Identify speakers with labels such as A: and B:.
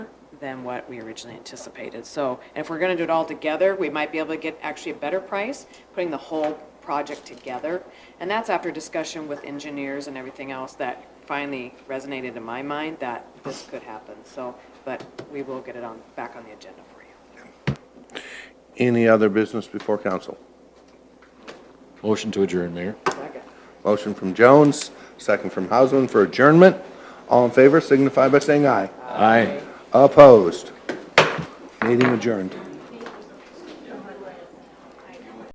A: than what we originally anticipated. So if we're going to do it all together, we might be able to get actually a better price, putting the whole project together. And that's after discussion with engineers and everything else that finally resonated in my mind that this could happen. So, but we will get it on, back on the agenda for you.
B: Any other business before council?
C: Motion to adjourn, Mayor.
A: Second.
B: Motion from Jones, second from Hausman for adjournment. All in favor signify by saying aye.
C: Aye.
B: Opposed? Meeting adjourned.